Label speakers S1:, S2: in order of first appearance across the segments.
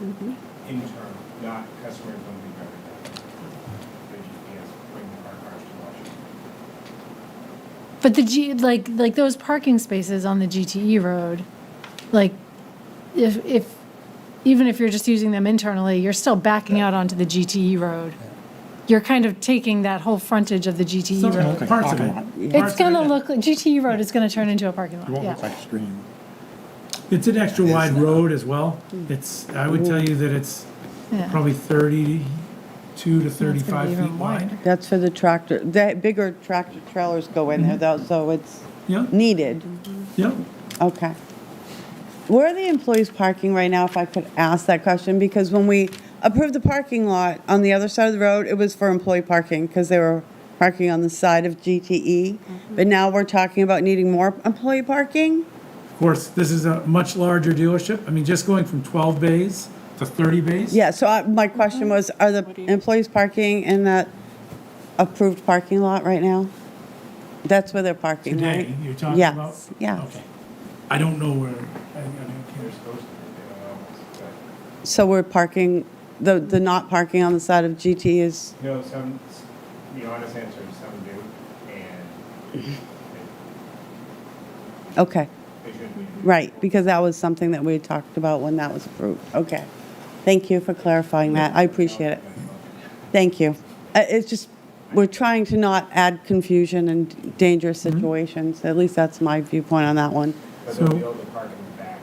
S1: internal, not customer dumping garbage. The GPS bring our cars to Washington.
S2: But the G, like, like those parking spaces on the GTE road, like, if, if, even if you're just using them internally, you're still backing out onto the GTE road. You're kind of taking that whole frontage of the GTE road.
S3: like
S1: Parts of
S3: parking lot.
S1: it.
S2: It's
S1: Parts of
S2: gonna
S1: it.
S2: look, like GTE road is gonna turn into a parking
S3: It
S2: lot,
S3: won't look
S2: yeah.
S3: like a stream.
S1: It's an extra wide road as well. It's, I would tell you that it's
S2: Yeah.
S1: probably thirty-two to thirty-five
S2: even
S1: feet wide.
S2: wider.
S4: That's for the tractor, that bigger tractor trailers go in there though, so it's
S1: Yeah,
S4: needed.
S1: yeah.
S4: Okay. Where are the employees parking right now, if I could ask that question? Because when we approved the parking lot on the other side of the road, it was for employee parking because they were parking on the side of GTE. But now we're talking about needing more employee parking?
S1: Of course, this is a much larger dealership. I mean, just going from twelve bays to thirty bays.
S4: Yeah, so I- my question was, are the employees parking in that approved parking lot right now? That's where they're parking, right?
S1: Today, you're talking
S4: Yes,
S1: about?
S4: yes.
S1: Okay. I don't know where, I, I don't care.
S4: So we're parking, the, the not parking on the side of GT is,
S5: No, some, the honest answer is some do, and
S4: okay,
S5: they shouldn't be.
S4: right, because that was something that we had talked about when that was approved. Okay. Thank you for clarifying that. I appreciate it. Thank you. Uh, It's just, we're trying to not add confusion and dangerous situations. At least that's my viewpoint on that one.
S5: But they'll
S1: So-
S5: be able to park in the back. up-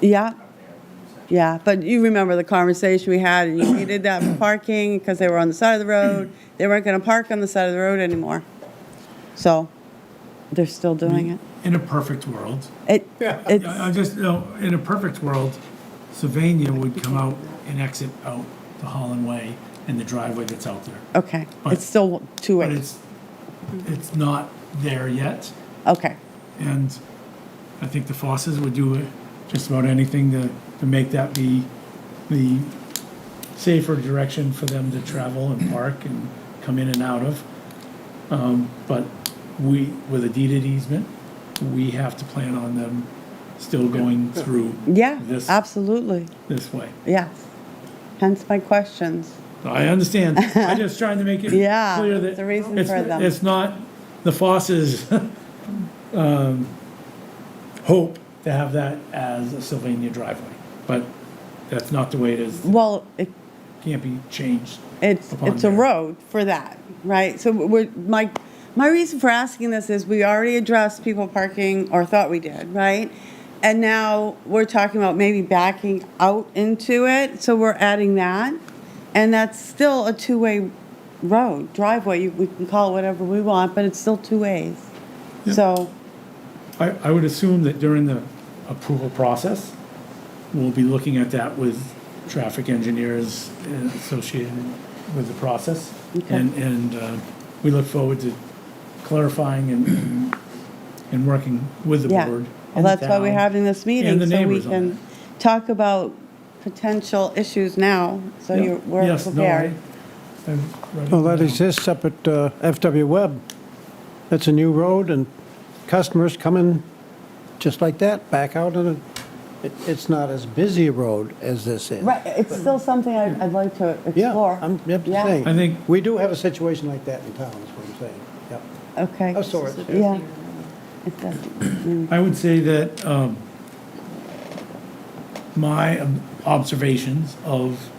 S4: Yeah,
S5: up there, and
S4: yeah, but you remember the conversation we had, and you needed that for parking because they were on the side of the road. They weren't going to park on the side of the road anymore. So they're still doing it.
S1: In a perfect world,
S4: It,
S1: I I
S4: it's,
S1: just, no, in a perfect world, Sylvania would come out and exit out the Holland Way and the driveway that's out there.
S4: okay,
S1: But-
S4: it's still two
S1: But
S4: ways.
S1: it's, it's not there yet,
S4: Okay,
S1: and I think the Fosses would do just about anything to, to make that be the safer direction for them to travel and park and come in and out of. Um, But we, with a deed at easement, we have to plan on them still going through.
S4: yeah,
S1: This-
S4: absolutely,
S1: this way.
S4: yes. Hence my questions.
S1: I understand. I'm just trying to make it
S4: Yeah,
S1: clear that
S4: it's a reason
S1: it's-
S4: for them.
S1: It's not the Fosses' um, hope to have that as a Sylvania driveway, but that's not the way it is. It
S4: Well, it
S1: Can't be changed.
S4: It's,
S1: upon
S4: it's a
S1: merit.
S4: road for that, right? So we're, my, my reason for asking this is we already addressed people parking, or thought we did, right? And now we're talking about maybe backing out into it, so we're adding that. And that's still a two-way road, driveway, you- we can call it whatever we want, but it's still two ways. So,
S1: I, I would assume that during the approval process, we'll be looking at that with traffic engineers uh, associated with the process.
S4: Okay.
S1: And, and uh, we look forward to clarifying and- and, and working with the
S4: yeah,
S1: board.
S4: well,
S1: and the
S4: that's why we're
S1: town
S4: having this meeting,
S1: the
S4: so we
S1: neighbors on
S4: can talk about potential issues now, so
S1: Yeah.
S4: you're, we're
S1: Yes, no, I-
S4: prepared.
S1: I'm writing
S6: Well, that
S1: down.
S6: exists up at uh, FW Webb. That's a new road, and customers come in just like that, back out, and it- it's not as busy a road as this is.
S4: Right, it's still something I'd, I'd like to
S6: Yeah,
S4: explore.
S6: I'm I'm just
S4: Yeah.
S6: saying.
S1: I think-
S6: We do have a situation like that in town, is what I'm saying. Yep.
S4: Okay.
S6: Of sorts, yeah.
S4: Yeah. It does.
S1: I would say that um, my ob- observations of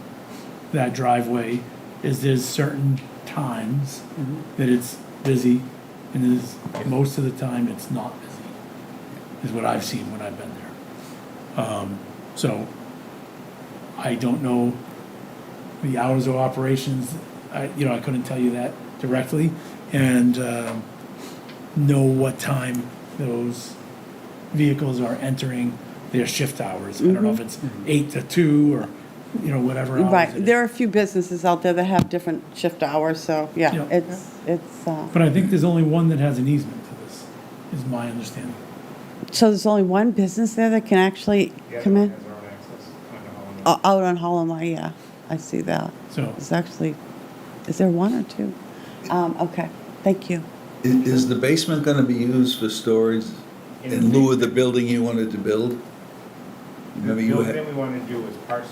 S1: that driveway is there's certain times that it's busy, and there's, most of the time, it's not busy, is what I've seen when I've been there. Um, So I don't know the hours of operations, I, you know, I couldn't tell you that directly, and um, know what time those vehicles are entering their shift hours. I don't know if it's eight to two, or, you know, whatever hours
S4: Mm-hmm. Right,
S1: it is.
S4: there are a few businesses out there that have different shift hours, so, yeah,
S1: Yeah.
S4: it's, it's, uh,
S1: But I think there's only one that has an easement to this, is my understanding.
S4: so there's only one business there that can actually
S5: The other
S4: come
S5: one
S4: in? Uh,
S5: has their own access onto Holland.
S4: O- Out on Hollow Mile, yeah, I see that.
S1: So,
S4: It's actually, is there one or two? Um, okay, thank you.
S7: I- Is the basement gonna be used for storage in lieu of the building you wanted to build?
S5: The
S7: Remember you
S5: building
S7: had-
S5: that we want to do is parts